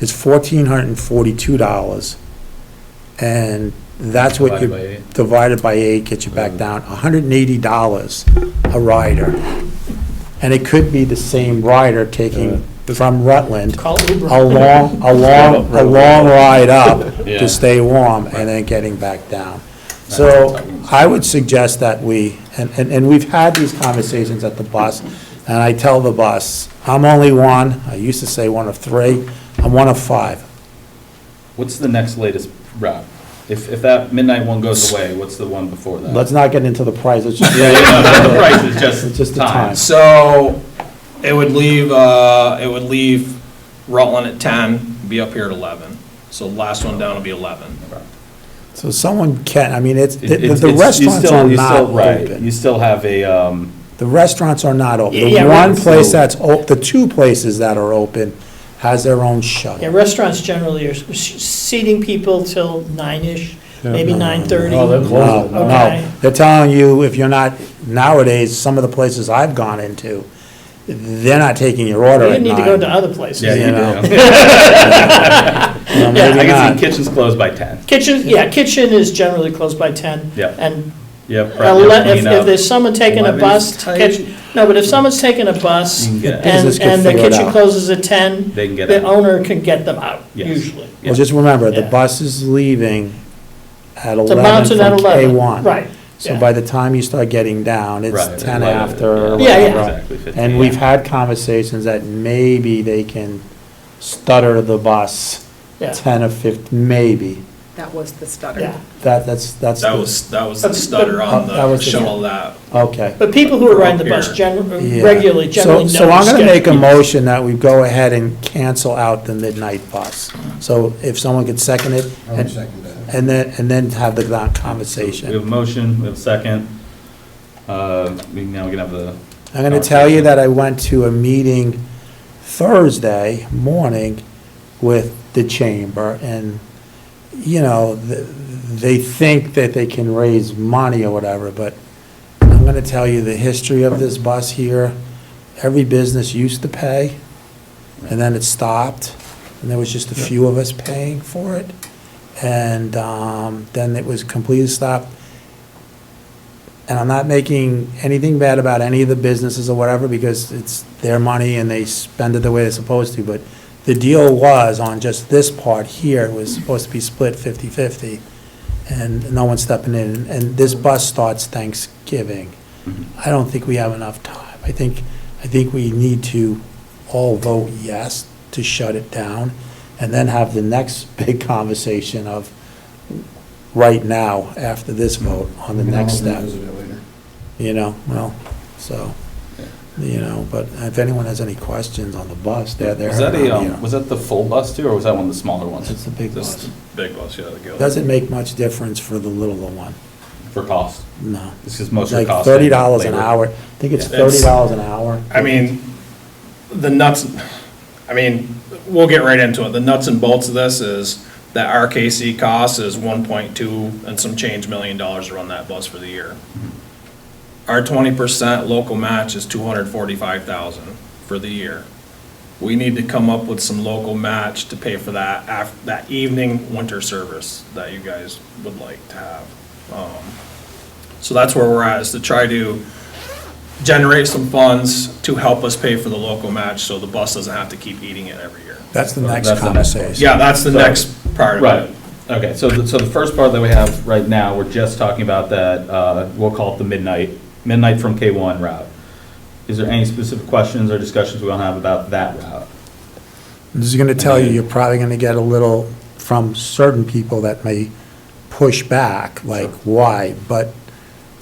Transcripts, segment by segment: is fourteen hundred and forty-two dollars. And that's what Divided by you, eight. Mm. divided by eight, gets you back down, hundred and eighty dollars a rider. And it could be the same rider taking from Rutland, Call Uber. a long, a long, a long ride up Yeah. to stay warm and then getting back down. So I would suggest that we, and, and and we've had these conversations at the bus, and I tell the bus, I'm only one, I used to say one of three, I'm one of five. What's the next latest route? If, if that midnight one goes away, what's the one before that? Let's not get into the price, it's just, Yeah, yeah, no, not the price, it's It's just. just the time. So it would leave, uh, it would leave Rutland at ten, be up here at eleven. So the last one down will be eleven. so someone can, I mean, it's, It- the it's- the it's- you restaurants still- are you not still- right, You open. still have a, um, The restaurants are not open. Yeah, The right. one place that's, o- the two places that are open has their own shuttle. Yeah, restaurants generally are s- s- seating people till nine-ish, maybe nine-thirty. Oh, they're closed. No, Okay. no, they're telling you, if you're not, nowadays, some of the places I've gone into, they're not taking your order You at need to go to nine. other yeah, places. you know. you do. No, Yeah, I Maybe can not. see kitchens closed by ten. Kitchen, yeah, kitchen is generally closed by ten. Yeah. And You have prep, you have ele- if, cleanup. if there's someone taking a 11 is bus, tight. kitchen, no, but if someone's taking a bus You can and, get- Business can and the figure it kitchen out. closes at ten, They can get the out. owner can get them out, Yes. usually. Well, just remember, the Yeah. bus is leaving at The eleven mountain at from K eleven, one. right. So yeah. by the time you start getting down, Right, it's ten right, after yeah. or Yeah, yeah. whatever. Exactly, 15, And we've yeah. had conversations that maybe they can stutter the bus Yeah. ten or fifteen, maybe. That was the stutter. Yeah, That, that's, that's. That the- was, that was the stutter on That the was the- shuttle that. Okay. but people who are riding the bus Here. generally, Yeah. regularly, So- generally know. So I'm going to the make a schedule. motion that we go ahead and cancel out the midnight bus. So if someone could second it. and- And then, and then have the con- We have conversation. a motion, we have a second. Uh, we can- now we can have the, I'm going to tell you that I went to a meeting Thursday morning with the chamber and, you know, th- they think that they can raise money or whatever, but I'm going to tell you the history of this bus here. Every business used to pay, and then it stopped, and there was just a few of us paying for it. And um, then it was completely stopped. And I'm not making anything bad about any of the businesses or whatever, because it's their money and they spend it the way they're supposed to, but the deal was on just this part here, it was supposed to be split 50-50, and no one's stepping in, and this bus starts Thanksgiving. I don't think we have enough time. I think, I think we need to all vote yes to shut it down, and then have the next big conversation of right now, after this vote, on the next step you know, well, so, you know, but if anyone has any questions on the bus, they're there. was that a, you know. um, was that the full bus too, or was that one of the smaller ones? It's the big This- bus. Big bus, yeah, the Gillis. Doesn't make much difference for the littler one, For cost. no. This is mostly Like cost. thirty dollars an labor. hour, I think it's Yeah, that's- thirty dollars an hour. I mean, the nuts, I mean, we'll get right into it. The nuts and bolts of this is that RKC cost is one point two and some change million dollars to run that bus for the year. Our twenty percent local match is two hundred forty-five thousand for the year. We need to come up with some local match to pay for that af, that evening winter service that you guys would like to have. Um, So that's where we're at, is to try to generate some funds to help us pay for the local match, so the bus doesn't have to keep eating it every year. That's the next That's the next one. conversation. Yeah, that's the next part of Right, it. okay, so, the- so the first part that we have right now, we're just talking about that, uh, we'll call it the midnight, midnight from K1 route. Is there any specific questions or discussions we want to have about that route? This is gonna tell you, you're probably gonna get a little from certain people that may push back, like, why? But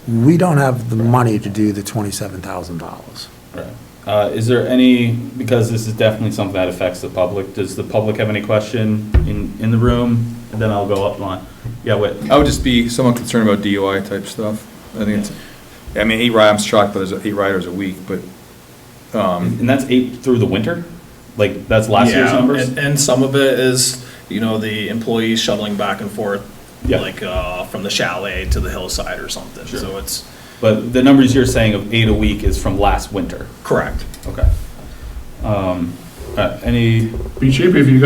we don't have the money to do the twenty-seven thousand dollars. Right. Uh, Is there any, because this is definitely something that affects the public, does the public have any question in, in the room? And then I'll go up line. Yeah, wait, I would just be somewhat concerned about DUI type stuff. I think it's, I mean, eight ri, I'm shocked that there's eight riders a week, but, um, and that's eight through the winter? Like, that's last year's Yeah, numbers? and- And some of it is, you know, the employees shuttling back and forth, Yeah. like, uh, from the chalet to the hillside or something, so it's, But the numbers you're saying of eight a week is from last winter? correct. Okay. Um, uh, Any Be cheaper if you